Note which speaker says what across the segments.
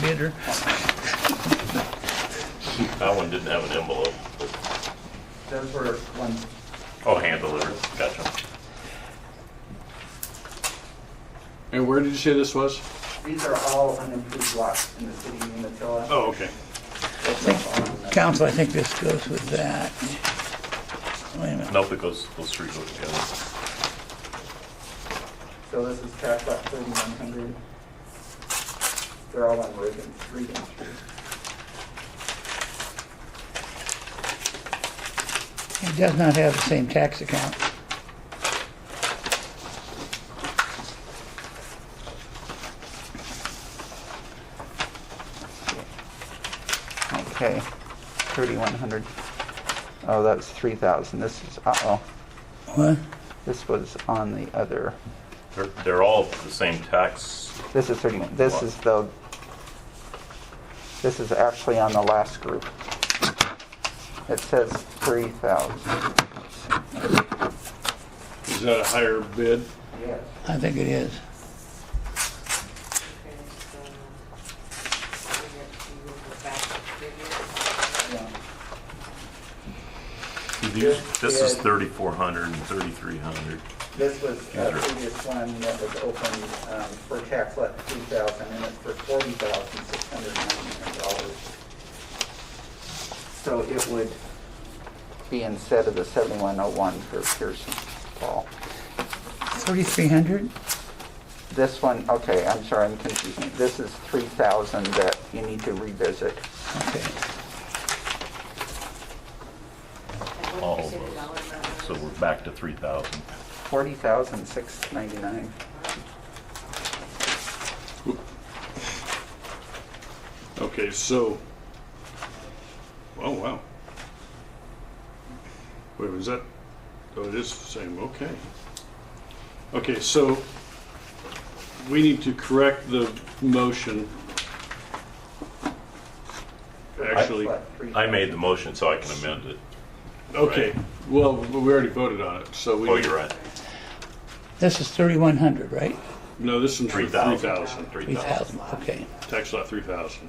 Speaker 1: bidder.
Speaker 2: That one didn't have an envelope. but-
Speaker 3: Those were one,
Speaker 2: Oh, hand delivered, gotcha.
Speaker 4: And where did you say this was?
Speaker 3: these are all unimproved lots in the city of Umatilla.
Speaker 4: Oh, okay.
Speaker 3: Those are all on the-
Speaker 1: Council, I think this goes with that. Wait a minute.
Speaker 2: Nope, it goes, those three go together.
Speaker 3: So this is track lot thirty-one hundred. They're all on Reagan, Reagan Street.
Speaker 1: It does not have the same tax account.
Speaker 3: Okay, thirty-one hundred. Oh, that's three thousand. This is, uh-oh,
Speaker 1: What?
Speaker 3: this was on the other.
Speaker 2: They're, they're all the same tax.
Speaker 3: This is 31, this
Speaker 2: What?
Speaker 3: is the, this is actually on the last group. It says 3,000.
Speaker 4: Is that a higher bid?
Speaker 3: Yes.
Speaker 1: I think it is.
Speaker 5: Okay, so, uh, we have to go back to figures.
Speaker 2: This is thirty-four hundred and thirty-three hundred.
Speaker 3: This was a
Speaker 2: These are-
Speaker 3: previous one that was opened um, for tax lot 3,000, and it's for $40,699. So it would be instead of the 7101 for Pearson Paul.
Speaker 1: 3,300?
Speaker 3: This one, okay, I'm sorry, I'm confusing. This is 3,000 that you need to revisit.
Speaker 1: Okay.
Speaker 5: And
Speaker 2: All
Speaker 5: what
Speaker 2: of
Speaker 5: percent
Speaker 2: those.
Speaker 5: dollar amount
Speaker 2: So
Speaker 5: is-
Speaker 2: we're back to three thousand.
Speaker 3: 40,699.
Speaker 4: Okay, so. Oh, wow. Wait, was that? Oh, it is the same, okay. Okay, so we need to correct the motion. Actually,
Speaker 3: Lot 3,000.
Speaker 2: I made the motion, so I can amend it.
Speaker 4: okay, well, we already voted on it, so we.
Speaker 2: Oh, you're right.
Speaker 1: This is 3,100, right?
Speaker 4: No, this one's for
Speaker 2: Three
Speaker 4: three
Speaker 2: thousand.
Speaker 4: thousand.
Speaker 2: Three thousand.
Speaker 1: 3,000, okay.
Speaker 4: tax lot three thousand.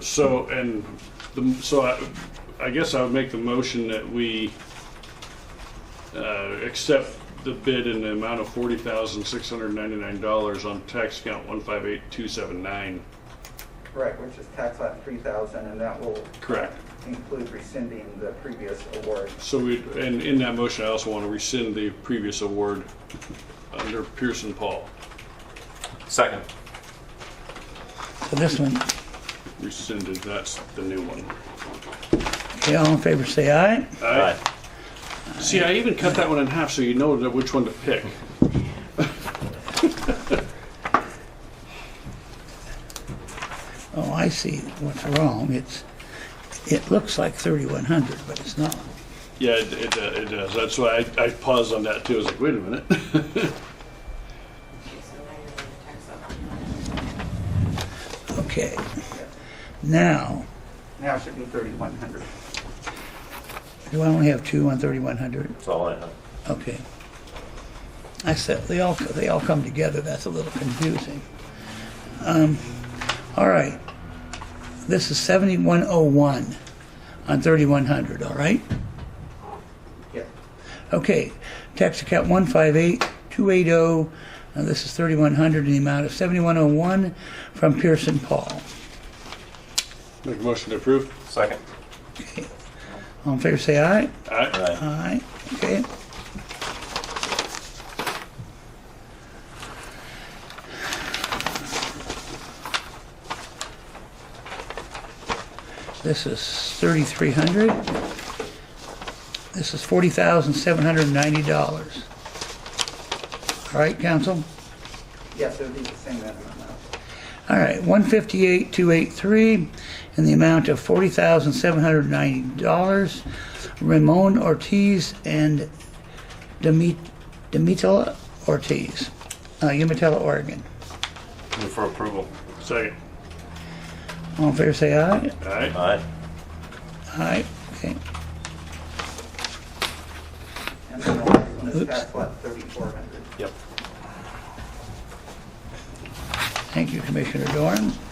Speaker 4: So, and, the so I, I guess I would make the motion that we, uh, accept the bid in the amount of forty thousand, six hundred ninety-nine dollars on tax count one five eight two seven nine.
Speaker 3: Right, which is tax lot 3,000, and that will
Speaker 4: Correct.
Speaker 3: include rescinding the previous award.
Speaker 4: So we, and in that motion, I also want to rescind the previous award under Pearson Paul.
Speaker 2: Second.
Speaker 1: So this one,
Speaker 4: Rescinded, that's the new one.
Speaker 1: okay, all in favor, say aye.
Speaker 2: Aye.
Speaker 4: See, I even cut that one in half so you know that which one to pick.
Speaker 1: Oh, I see what's wrong. It's, it looks like 3,100, but it's not.
Speaker 4: Yeah, it, it, uh, it does. That's why I, I paused on that too. I was like, wait a minute.
Speaker 5: Okay, so now you're gonna tax up on that.
Speaker 1: Okay. Now,
Speaker 3: Now it should be 3,100.
Speaker 1: do I only have two on 3,100?
Speaker 2: That's all I have.
Speaker 1: Okay. I said, they all, they all come together, that's a little confusing. Um, All right. This is 7101 on 3100, all right?
Speaker 3: Yeah.
Speaker 1: Okay, tax account 158280, uh, this is 3100 in the amount of 7101 from Pearson Paul.
Speaker 4: Make a motion to approve.
Speaker 2: Second.
Speaker 1: All in favor, say aye.
Speaker 4: Aye.
Speaker 2: Aye.
Speaker 1: Aye, okay. This is 3,300. This is $40,790. All right, council?
Speaker 3: Yes, it would be the same amount now.
Speaker 1: All right, 158,283 in the amount of $40,790. Ramon Ortiz and Demit- Demitella Ortiz, uh, Umatilla, Oregon.
Speaker 2: Move for approval.
Speaker 4: Second.
Speaker 1: All in favor, say aye.
Speaker 4: Aye.
Speaker 2: Aye.
Speaker 1: Aye, okay.
Speaker 3: And then the last one is
Speaker 1: Oops.
Speaker 3: tax lot 3,400.
Speaker 2: Yep.
Speaker 1: Thank you, Commissioner Doran.